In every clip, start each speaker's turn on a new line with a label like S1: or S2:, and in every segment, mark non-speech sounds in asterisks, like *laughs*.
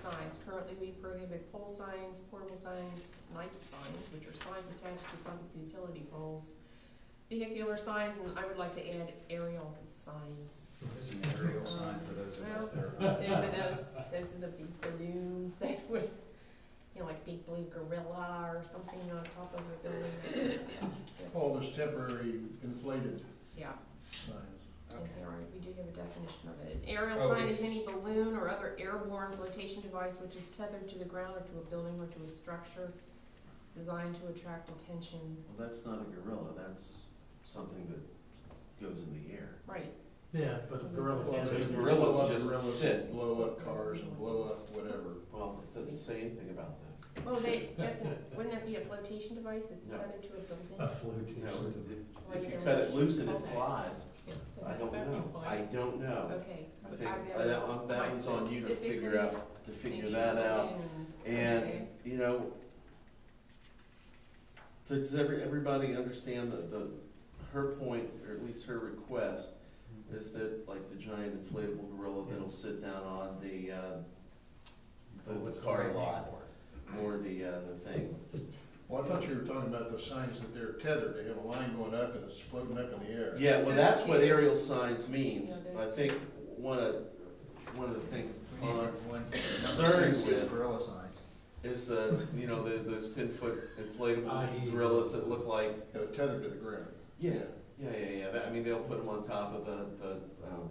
S1: signs, currently we prohibit pole signs, portable signs, snipe signs, which are signs attached to public utility poles, vehicular signs, and I would like to add aerial signs.
S2: This is an aerial sign for those of us that are.
S1: Those are those, those are the big balloons *laughs* that would, you know, like big blue gorilla or something on top of a building. that is- that's-
S3: All this Oh, temporary inflated
S1: Yeah,
S3: signs.
S1: okay, all right, we do have a definition of it. An Aerial
S2: Oh,
S1: sign is
S2: it's-
S1: any balloon or other airborne flotation device which is tethered to the ground or to a building or to a structure designed to attract attention.
S4: Well, that's not a gorilla, that's something that goes in the air.
S1: Right,
S5: Yeah, but a gorilla
S3: Well,
S5: can't.
S3: they
S4: Gorillas
S5: do
S3: blow up
S4: just
S3: gorillas,
S4: sit.
S3: Blow up cars and blow up whatever.
S4: Well, it doesn't say anything about this.
S1: well, they, that's, an- wouldn't that be a flotation device that's
S4: No.
S1: tethered to a building?
S5: A flotation.
S4: No,
S1: Like
S4: if, if you
S1: a
S4: cut it
S1: leash.
S4: loose and it
S1: Okay.
S4: flies,
S1: Yeah.
S4: I don't know, I don't know.
S1: Okay.
S4: I
S1: but
S4: think,
S1: I've
S4: uh,
S1: got
S4: that one, that
S1: my
S4: one's on you to figure
S1: specifically
S4: out, to figure that out.
S1: mentioned
S4: And,
S1: balloons.
S4: you know, does every, everybody understand that the, her point, or at least her request,
S2: Mm-hmm.
S4: is that like the giant inflatable gorilla that'll sit down on the, uh,
S2: Oh,
S4: the car lot or the, uh, the thing.
S3: Well, I thought you were talking about the signs that they're tethered, they have a line going up and it's floating up in the air.
S4: Yeah, well,
S1: There's
S4: that's what
S1: two.
S4: aerial signs means.
S1: Yeah,
S4: I
S1: there's
S4: think one of, one of the things
S2: We need
S4: on
S2: one, number
S4: Concerned
S2: six
S4: with-
S2: is gorilla signs.
S4: is the, you know, the, those ten foot inflatable
S2: E.
S5: I-
S4: gorillas that look like,
S3: Yeah, Uh, Tethered to the ground.
S4: yeah, yeah, yeah, yeah. That- I mean, they'll put them on top of the, the, um,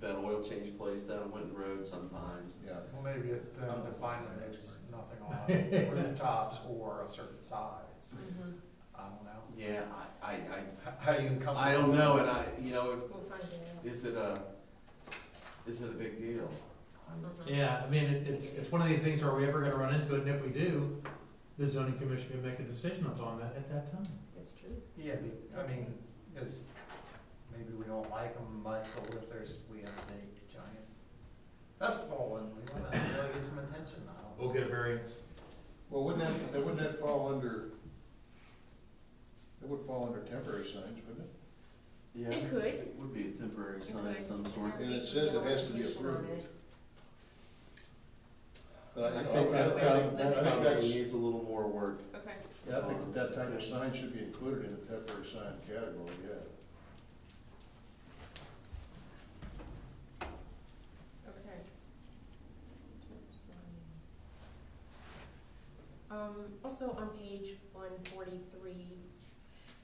S4: that oil change place down Winton Road sometimes.
S3: Yeah.
S6: Well, maybe it then
S4: Oh.
S6: define that there's nothing on rooftops or a certain size.
S1: Mhm.
S6: I don't know.
S4: Yeah, I, I,
S6: How- How do you come?
S4: I, I don't know, and I, you know,
S1: We'll find
S4: if, is it a, is it a big deal?
S1: it out. Mhm.
S5: Yeah, I mean, it, it's, it's one of these things, are we ever gonna run into it, and if we do, the zoning commission can make a decision upon that at that time.
S1: That's true.
S6: Yeah, be- I mean, is, maybe we don't like them much, but if there's, we have a big giant festival and we wanna really get some attention, I don't know.
S5: We'll get a variance.
S3: Well, wouldn't that, that- wouldn't that fall under, it would fall under temporary signs, wouldn't it?
S4: Yeah,
S1: It could.
S4: It would be a temporary sign of some sort.
S3: And it says it has to be
S1: Application on
S3: approved.
S1: it.
S3: But I
S4: I
S3: think
S4: think that
S3: that,
S4: prob-
S3: I
S4: that
S3: think
S4: probably
S3: that's,
S4: needs a little more work.
S1: Okay,
S3: yeah, I think that type of sign should be included in the temporary sign category, yeah.
S1: okay. Um, also on page one forty-three,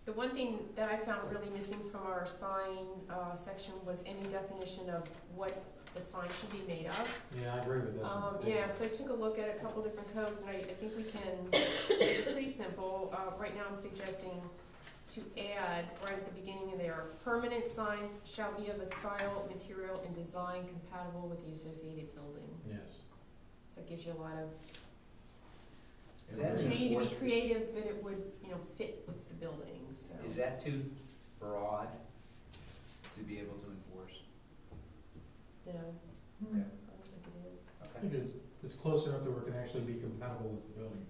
S1: the one thing that I found really missing from our sign, uh, section was any definition of what the sign should be made of.
S5: Yeah, I agree with this.
S1: Um, yeah, so I took a look at a couple different codes, and I, I think we can, make it pretty simple, uh, right now I'm suggesting to add, right at the beginning of there, permanent signs shall be of a style, material, and design compatible with the associated building.
S5: Yes.
S1: So it gives you a lot of,
S2: Is that
S1: you
S2: too,
S1: know, you need to be
S2: enforce- is-
S1: creative, but it would, you know, fit with the building, so.
S2: is that too broad to be able to enforce?
S1: No,
S2: Okay.
S1: I don't think it is,
S5: I
S2: Okay.
S5: think it's, it's close enough that we can actually be compatible with the building.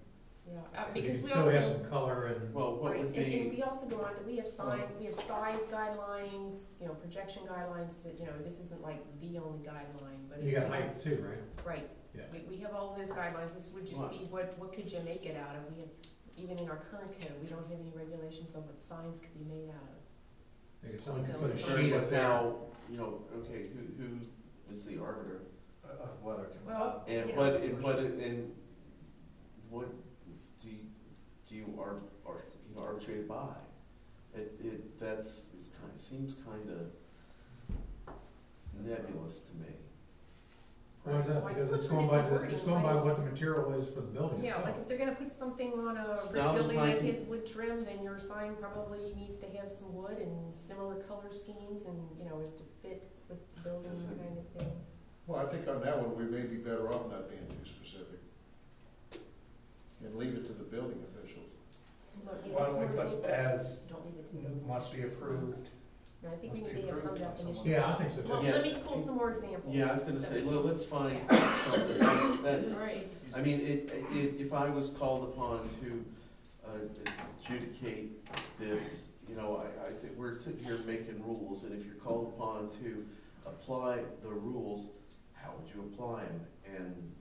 S1: yeah, uh, because
S5: You
S1: we
S5: Still have
S1: also,
S5: some color and,
S4: Well, what
S1: right,
S4: would
S1: and, and
S4: be,
S1: we also go on, to- we have sign, we have size guidelines, you know, projection guidelines, that, you know, this isn't like the only guideline, but.
S5: you
S1: it-
S5: got height too, right?
S1: Right,
S5: Yeah.
S1: we, we have all those guidelines, this would just
S4: Right.
S1: be, what, what could you make it out of? We have, even in our current code, we don't have any regulations on what signs could be made out of.
S5: Like if someone could
S1: So
S5: put a
S1: it's-
S5: sheet
S4: concerned
S5: up
S4: with
S5: there.
S4: how, you know, okay, who, who is the arbiter?
S6: Uh, Of whether it's.
S1: Well,
S4: And
S1: Yeah.
S4: what, and what, and what do you, do you ar- ar- you know, arbitrate by? It, it, that's, it's kind, seems kind of nebulous to me.
S5: Why is that?
S1: Why
S5: Because
S1: put
S5: it's
S1: some
S5: going by,
S1: different
S5: it's going by
S1: wording,
S5: what
S1: like-
S5: the material is for the building
S1: Yeah, like
S5: itself.
S1: if they're gonna put something on a brick
S4: Sounds
S1: building
S4: like
S1: that
S4: it-
S1: has wood trim, then your sign probably needs to have some wood and similar color schemes and, you know, it to fit with the building
S4: Does it-
S1: kind of thing.
S3: Well, I think on that one, we may be better off not being too specific. And leave it to the building officials.
S1: Look, you know,
S6: Why
S1: it's
S6: don't we
S1: more
S6: put
S1: examples.
S6: as,
S1: Don't leave it to them.
S6: must be approved,
S1: No, I think we
S6: must be
S1: need to have some
S6: approved by someone.
S1: definition.
S5: Yeah, I think so
S1: Well,
S5: too.
S4: Yeah.
S1: let me pull some more examples.
S4: Yeah, I was gonna
S1: that
S4: say,
S1: we-
S4: well, let's find something that, that-
S1: All right,
S4: I mean, it, it, if I was called upon to uh, adjudicate this, you know, I, I say, we're sitting here making rules, and if you're called upon to apply the rules, how would you apply them? And